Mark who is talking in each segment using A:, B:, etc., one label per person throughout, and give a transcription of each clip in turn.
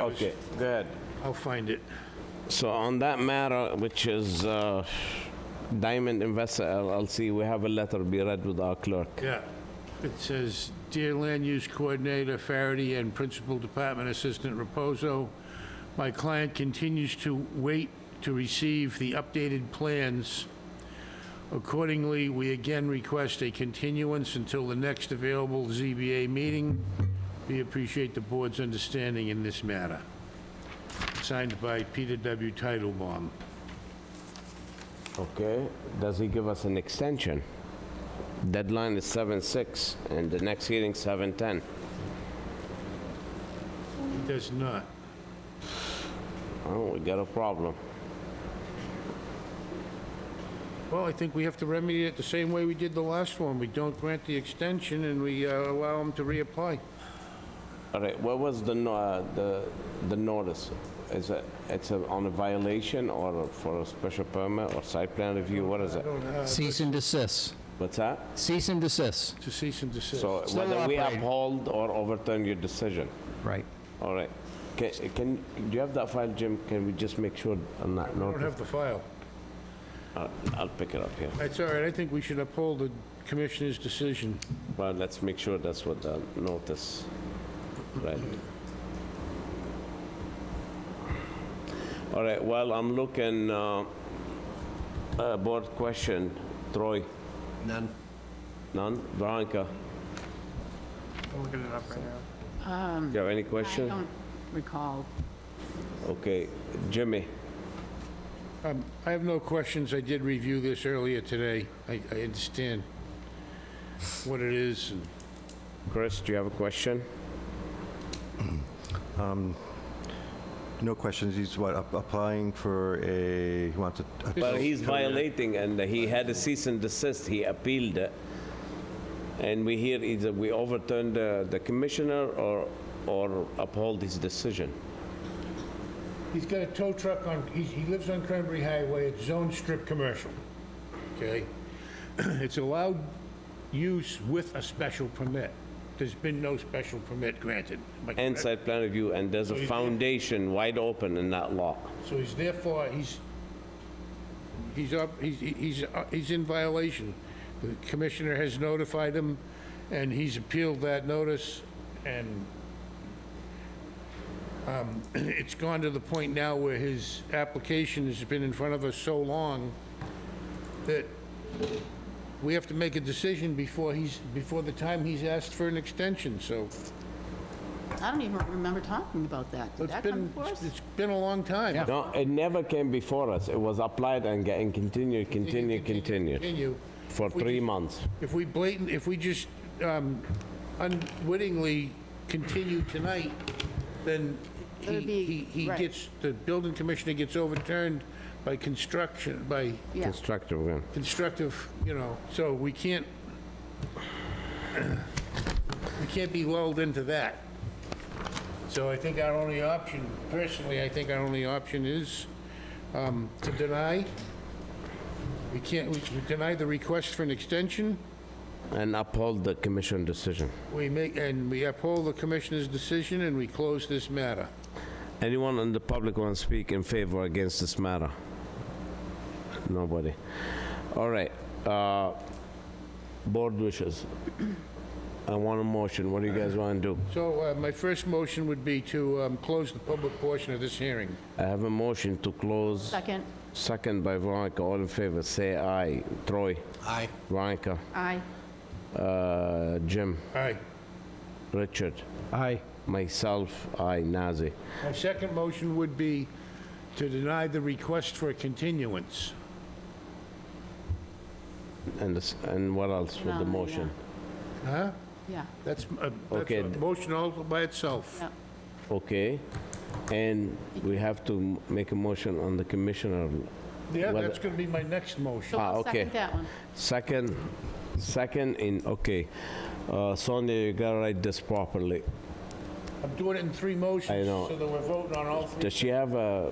A: Okay, good.
B: I'll find it.
A: So on that matter, which is uh, Diamond Investor LLC, we have a letter be read with our clerk.
B: Yeah. It says, "Dear Land Use Coordinator Farady and Principal Department Assistant Reposo, my client continues to wait to receive the updated plans. Accordingly, we again request a continuance until the next available ZBA meeting. We appreciate the board's understanding in this matter." Signed by Peter W. Titlebaum.
A: Okay, does he give us an extension? Deadline is 7/6, and the next hearing 7/10.
B: Does not.
A: Oh, we got a problem.
B: Well, I think we have to remedy it the same way we did the last one. We don't grant the extension and we uh, allow them to reapply.
A: All right, what was the, no- uh, the the notice? Is it, it's a- on a violation or for a special permit or site plan review? What is it?
C: Cease and desist.
A: What's that?
C: Cease and desist.
B: To cease and desist.
A: So
C: Still
A: whether we
C: operating.
A: uphold or overturn your decision?
C: Right.
A: All right. Can, can, do you have that file, Jim? Can we just make sure on that
B: I don't
A: note?
B: have the file.
A: I'll I'll pick it up here.
B: That's all right. I think we should uphold the commissioner's decision.
A: Well, let's make sure that's what the notice, right? All right, well, I'm looking, uh, uh, board question, Troy? None. None? Veronica?
D: I'm looking it up right now.
A: Do you have any
E: Um, I
A: question?
E: don't recall.
A: Okay, Jimmy?
B: Um, I have no questions. I did review this earlier today. I I understand what it is. and-
A: Chris, do you have a question?
F: No questions, he's what, ap- applying for a, he wants a... a-
B: Oh,
A: Well, he's violating, and he had a cease and desist, he appealed it. And we hear either we overturn the, the commissioner or, or uphold his decision.
B: He's got a tow truck on, he, he lives on Cranberry Highway, it's zone strip commercial, okay? It's allowed use with a special permit. There's been no special permit granted. Am I
A: And
B: correct?
A: site plan review, and there's a
B: you-
A: foundation wide open in that law.
B: So he's therefore, he's, he's up, he's, he's, he's in violation. The commissioner has notified him, and he's appealed that notice, and, um, it's gone to the point now where his application has been in front of us so long that we have to make a decision before he's, before the time he's asked for an extension, so.
E: I don't even remember talking about that. Did
B: it's
E: that come
B: been
E: before us?
B: It's been a long time.
A: No, it never came before us, it was applied and getting continued, continued, continued,
B: Continue.
A: for
B: We
A: three
B: just-
A: months.
B: If we blatant, if we just um, unwittingly continue tonight, then he,
E: It'll be-
B: he he
E: right.
B: gets, the building commissioner gets overturned by construction, by
E: Yeah,
A: Constructive, yeah.
B: constructive, you know, so we can't, we can't be lulled into that. So I think our only option, personally, I think our only option is um, to deny. We can't, we we deny the request for an extension.
A: And uphold the commission decision.
B: We make, and we uphold the commissioner's decision, and we close this matter.
A: Anyone in the public want to speak in favor or against this matter? Nobody. All right. uh, Board wishes. I want a motion. What do you guys want to do?
B: So uh, my first motion would be to um, close the public portion of this hearing.
A: I have a motion to close,
E: second,
A: second by Veronica. All in favor, say aye. Troy? Aye. Veronica?
E: aye.
A: uh, Jim?
B: Aye.
A: Richard?
C: Aye.
A: Myself, aye. Nazir?
B: My second motion would be to deny the request for a continuance.
A: And this- and what else with the
E: No, yeah.
A: motion?
B: Huh?
E: Yeah,
B: That's, uh, that's
A: Okay.
B: a motion all by itself.
E: yeah.
A: Okay. And we have to m- make a motion on the commissioner
B: Yeah,
A: Well,
B: that's going to be my next motion.
E: So
A: Ah,
E: I'll
A: okay.
E: second that one.
A: Second, second in, okay. Uh, Sonia, you gotta write this properly.
B: I'm doing it in three motions.
A: I know.
B: So that we're voting on all three.
A: Does she have uh,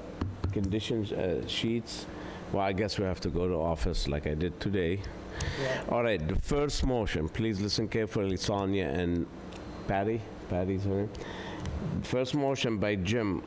A: conditions uh, sheets? Well, I guess we have to go to office like I did today. All right, the first motion, please listen carefully, Sonia and Patty, Patty's her name. First motion by Jim